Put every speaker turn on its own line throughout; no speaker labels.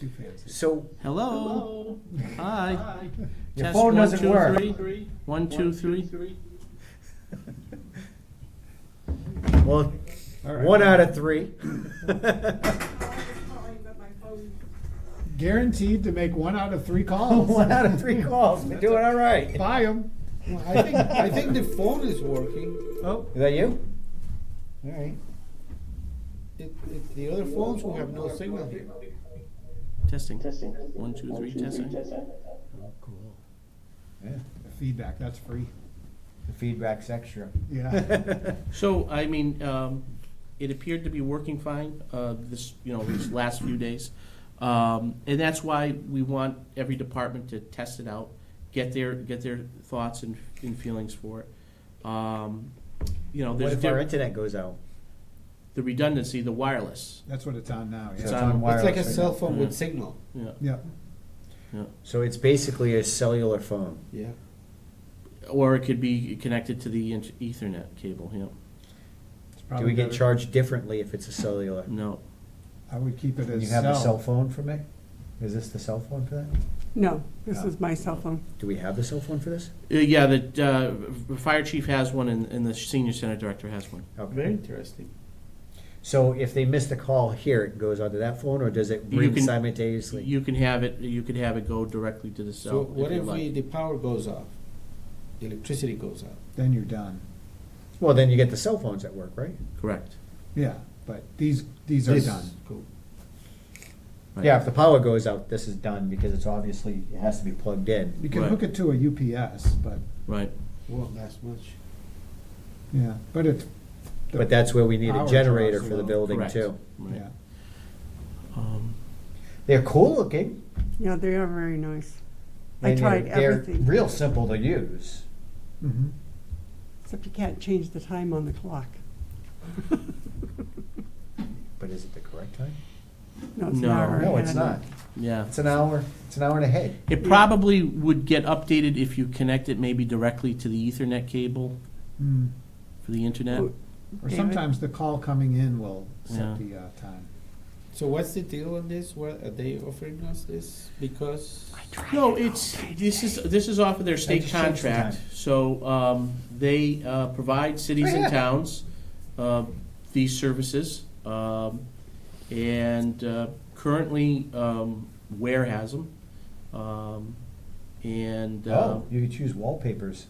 too fancy.
So,
Hello?
Hello.
Hi.
Your
Test
phone
one,
doesn't
two,
work.
three. One, two, three.
well,
All right.
one out of three.
Guaranteed to make one out of three calls.
one out of three calls. We're doing all right.
Buy them.
Well, I think I think the phone is working.
Oh, is that you?
All right. It, it, the other phones will have no signal here.
Testing. One, two, three, testing.
Oh, cool. Yeah, the feedback, that's free.
The feedback's extra.
Yeah.
So, I mean, um, it appeared to be working fine, uh, this, you know, these last few days. Um, and that's why we want every department to test it out, get their, get their thoughts and, and feelings for it. Um, you know,
What
there's
if our
di-
internet goes out?
the redundancy, the wireless,
That's what it's on now.
It's
Yeah.
on
It's like a
wireless right
cell
now.
phone with
Yeah.
signal.
yeah.
Yeah.
So it's basically a cellular phone.
Yeah.
Or it could be connected to the int- ethernet cable, yeah.
It's
Do
probably
we get
better.
charged differently if it's a cellular?
No,
I would keep it as
You have a cell phone for me? Is this the cell phone for that?
No, this
No.
is my cell phone.
Do we have the cell phone for this?
Uh, Yeah, the uh, fire chief has one, and, and the senior center director has one.
Okay.
interesting.
So if they missed a call here, it goes onto that phone, or does it
You
ring
can-
simultaneously?
You can have it. You could have it go directly to the
So,
cell.
what
you
if we,
like.
the power goes off? The electricity goes out.
Then you're done.
Well, then you get the cell phones at work, right?
Correct.
Yeah, but these, these are
This-
done.
Cool.
Right.
Yeah, if the power goes out, this is done, because it's obviously, it has to be plugged in.
You can
Right.
hook it to a UPS, but,
Right.
Won't last much.
yeah, but it, The
But that's where we need a
power
generator
draws
for the
alone.
building
Correct.
too.
Right.
yeah.
Um,
They're cool looking.
Yeah, they are very nice. I
and they're-
tried everything.
They're real simple to use.
Mhm.
Except you can't change the time on the clock.
But is it the correct time?
No, it's
No.
not. our
No, it's
hand.
not.
yeah.
It's an hour, it's an hour and a half.
It probably would get updated if you connect it maybe directly to the Ethernet cable
Mm.
for the internet.
Or-
Or
David?
sometimes the call coming in will set
Yeah.
the uh, time.
So what's the deal on this? What are they offering us this? Because
No, it's, this is, this is off of their state
just changed the
contract,
time.
so, um, they, uh, provide cities
Oh, yeah.
and towns, uh, these services. Um, and, uh, currently, um, Ware has them. Um, and, uh,
Oh, you could choose wallpapers.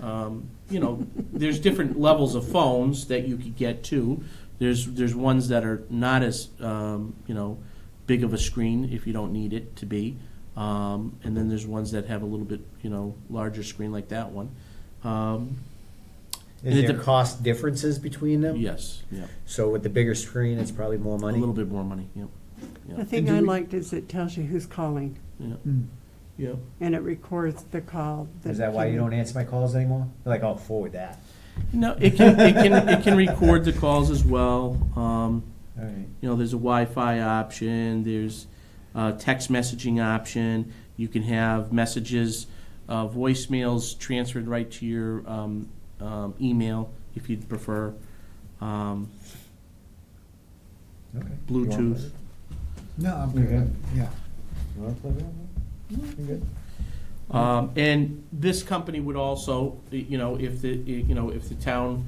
um, you know, there's different levels of phones that you could get to. There's there's ones that are not as um, you know big of a screen if you don't need it to be, um, and then there's ones that have a little bit you know larger screen like that one. Um, And
Is
it
there
dep-
cost differences between them?
yes, yeah,
So with the bigger screen, it's probably more
a
money?
little bit more money. Yep,
The thing
And do
I
we-
liked is it tells you who's calling,
yeah,
Mm.
yeah.
and it records the call.
Is that why you don't answer my calls anymore? You're like, oh, forward that.
No, it can it can it can record the calls as well. Um,
All right.
you know, there's a Wi-Fi option, there's a text messaging option. You can have messages, uh, voicemails transferred right to your um, um, email if you'd prefer. Um,
Okay.
Bluetooth.
No, I'm
You're
good,
good?
yeah.
You wanna play that? You good?
Um, and this company would also, you know, if the, you know, if the town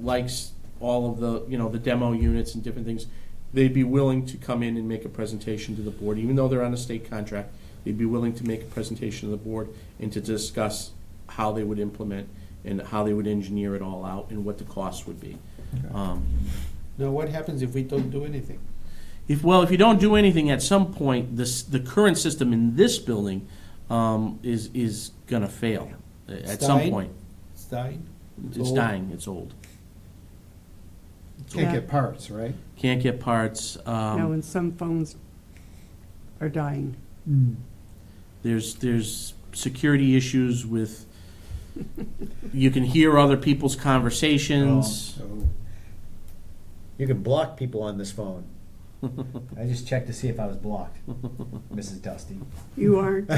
likes all of the, you know, the demo units and different things, they'd be willing to come in and make a presentation to the board, even though they're on a state contract, they'd be willing to make a presentation to the board and to discuss how they would implement and how they would engineer it all out and what the costs would be. Um,
now what happens if we don't do anything?
if, well, if you don't do anything, at some point, this, the current system in this building, um, is, is gonna fail uh, at some
Stein?
point.
It's dying.
It's
old.
dying, it's old.
Can't
Yeah.
get parts, right?
Can't get parts,
No,
um,
and some phones are dying.
Mm.
there's, there's security issues with, you can hear other people's conversations.
So,
You can block people on this phone. I just checked to see if I was blocked, Mrs. Dusty.
You aren't.